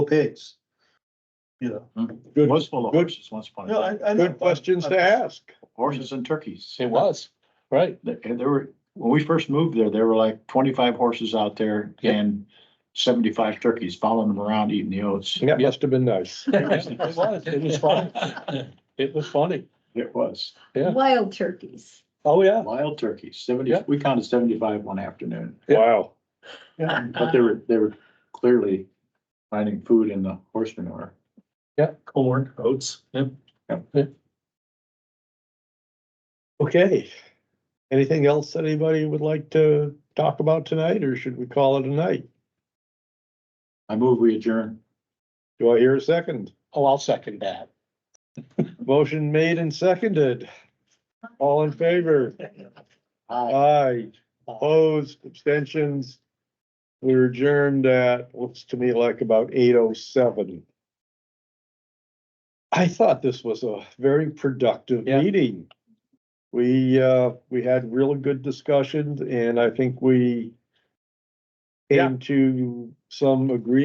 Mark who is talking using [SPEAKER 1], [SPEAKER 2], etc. [SPEAKER 1] pigs. You know,
[SPEAKER 2] Good,
[SPEAKER 3] Was full of
[SPEAKER 2] Good.
[SPEAKER 3] horses once upon a
[SPEAKER 1] no,
[SPEAKER 3] time,
[SPEAKER 1] I, I. know.
[SPEAKER 2] good questions to ask.
[SPEAKER 3] horses and turkeys.
[SPEAKER 4] It was, right.
[SPEAKER 3] They- and there were, when we first moved there, there were like twenty-five horses out there
[SPEAKER 4] Yeah.
[SPEAKER 3] and seventy-five turkeys following them around eating the oats.
[SPEAKER 2] That must have been nice.
[SPEAKER 4] It was, it was funny. It was funny.
[SPEAKER 3] It was
[SPEAKER 4] Yeah.
[SPEAKER 5] Wild turkeys.
[SPEAKER 4] Oh, yeah.
[SPEAKER 3] wild turkeys, seventy,
[SPEAKER 4] Yeah.
[SPEAKER 3] we counted seventy-five one afternoon,
[SPEAKER 2] Wow.
[SPEAKER 3] but they were, they were clearly finding food in the horse manure.
[SPEAKER 4] Corn, oats. Yep.
[SPEAKER 2] Okay. Anything else that anybody would like to talk about tonight, or should we call it a night?
[SPEAKER 3] I move we adjourn.
[SPEAKER 2] Do I hear a second?
[SPEAKER 4] Oh, I'll second that.
[SPEAKER 2] Motion made and seconded. All in favor? Aye. Opposed, abstentions. We are adjourned at, looks to me like about eight oh seven. I thought this was a very productive
[SPEAKER 4] Yeah.
[SPEAKER 2] meeting. We, uh, we had really good discussions and I think we
[SPEAKER 4] Yeah.
[SPEAKER 2] came to some agreement.